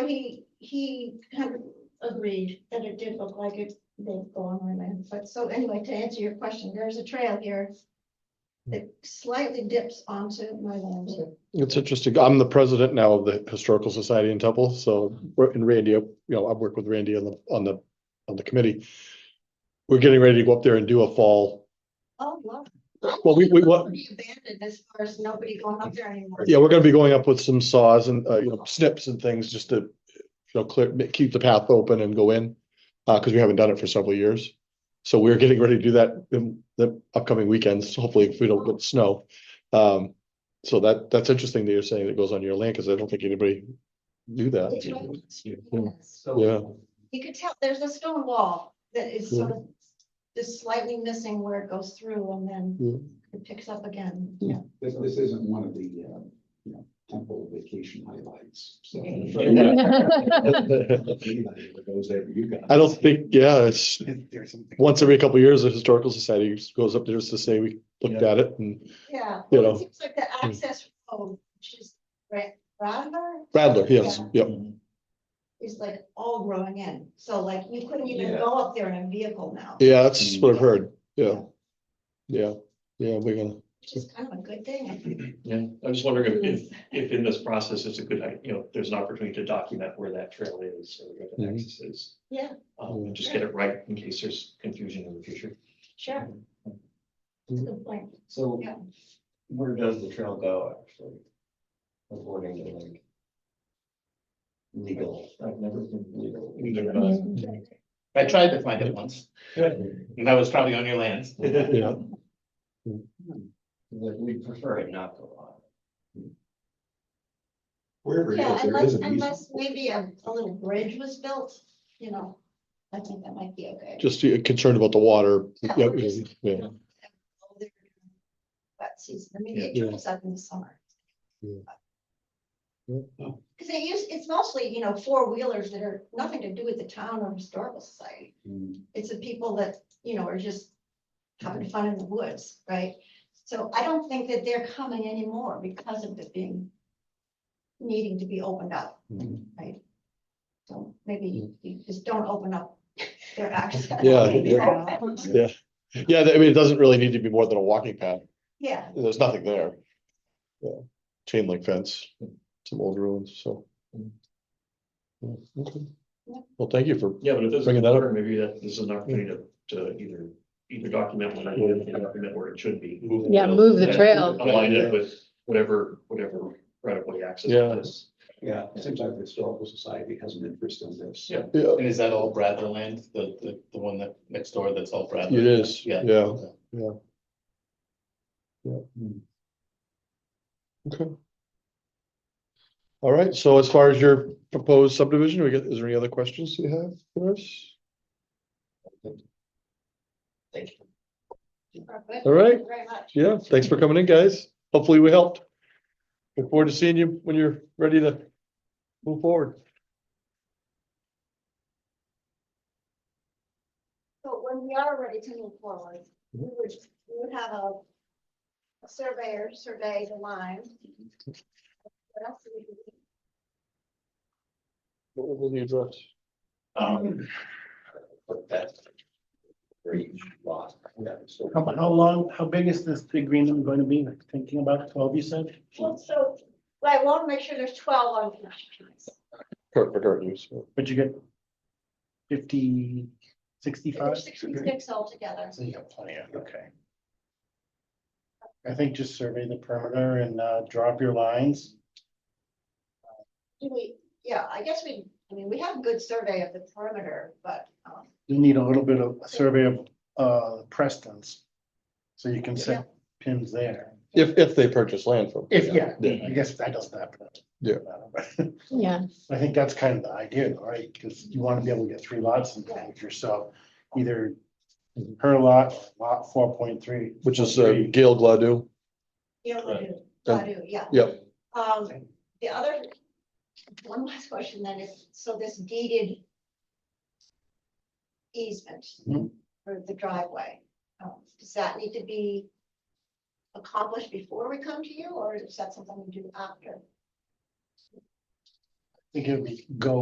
So he, he kind of agreed that it did look like it, they've gone on and, but so anyway, to answer your question, there's a trail here. That slightly dips onto my land. It's interesting. I'm the president now of the Historical Society in Temple, so we're in Randy, you know, I work with Randy on the, on the, on the committee. We're getting ready to go up there and do a fall. Oh, wow. Well, we, we, what, Pretty Abandoned as far as nobody going up there anymore. yeah, we're gonna be going up with some saws and, uh, you know, snips and things just to, you know, clear, ma- keep the path open and go in. Uh, cause we haven't done it for several years. So we're getting ready to do that in the upcoming weekends, hopefully if we don't get snow. Um, so that, that's interesting that you're saying it goes on your land, cause I don't think anybody knew It's that. right. Yeah. Yes. Yeah. You could tell, there's a stone wall that is sort of just slightly missing where it goes through and then Yeah. it picks up again, Yeah. yeah. This, this isn't one of the, uh, you know, temple vacation highlights. so- Anybody that goes there, you guys. I don't think, yeah, it's There's something. once every couple of years, the historical society just goes up there just to say we looked at it and Yeah. well, You it know. Seems like the access road, which is Ra- Radler. Radler, yes, Yeah, yep. Is like all growing in, so like you couldn't even Yeah. go up there in a vehicle now, Yeah, that's what I've heard. Yeah. Yeah, yeah, we're gonna, which is kind of a good thing. I think. Yeah, I'm just wondering Hmm. if, if, if in this process, it's a good, i- you know, there's an opportunity to document where that trail is or where the Mhm. nexus is. Yeah. Um, and just get it right in case there's confusion in the future. Sure. That's a good point, So yeah. where does the trail go actually? According to like. Legal. I've never been legal. Mm-hmm. I tried to find it once, and that was probably on your lands. yeah. Hmm. Like we prefer it not to go Wherever it Yeah, is, there unless, is an easement. unless maybe a, a little bridge was built, you know, I think that might be okay. Just uh, concerned about the water. Yeah, yeah, yeah. But season, I mean, it Yeah. dries up in the summer. Yeah. Yeah. But- Cause they use, it's mostly, you know, four wheelers that are nothing to do with the town or historical society. It's the people that, you know, are just having fun in the woods, right? So I don't think that they're coming anymore because of it being, needing to be opened up, Mhm. right? So maybe you just don't open up their access. Yeah, yeah. Yeah, yeah, I mean, it doesn't really need to be more than a walking path. Yeah, There's nothing there. Yeah, chain link fence, some old ruins, so. Yeah, okay. Yeah. Well, thank you for, Yeah, but if there's, Bringing that up. maybe that this is an opportunity to, to either, either document what I did and document where it should be. Move the Yeah, trail. move the trail. Align it with whatever, whatever right of way access Yeah. is. Yeah, it seems like the historical society has an interest in this. Yeah. yeah, And is that all Bradler land, the, the, the one that next door that's all Bradler? it is, Yeah. yeah. hmm. Okay. All right, so as far as your proposed subdivision, we get, is there any other questions you have for us? perfect. All right, Thank you Very much. yeah, thanks for coming in, guys. Hopefully we helped. Look forward to seeing you when you're ready to move forward. So when we are ready to move forward, we Mm-hmm. would, we would have a a surveyor survey the line. What else do we do? What will the address? Um, on. But that's. Great lot. Yeah, so. How, how long, how big is this big green room going to be? Like thinking about twelve, you said? Well, so, right, I want to make sure there's twelve on the lines. Kurt McCartney, use. Would you get fifty, sixty-five? There's sixty-six altogether. So you got plenty of, okay. I think just survey the perimeter and, uh, draw up your lines. Do we, yeah, I guess we, I mean, we have a good survey of the perimeter, but, um, You need a little bit of a survey of, uh, Preston's. So you can set pins there. if, if they purchase land from. If, yeah, Yeah. I guess that doesn't happen. Yeah. Yeah, I think that's kind of the idea, right? Because you want to be able to get three lots in there with yourself, either her lot, or lot four point three. Which is uh, Gail Gladue. you know, we Right. do, I do, yeah. Yep. Um, the other, one last question then is, so this deeded easement Mhm. for the driveway, um, does that need to be accomplished before we come to you, or is that something we do after? think it would be go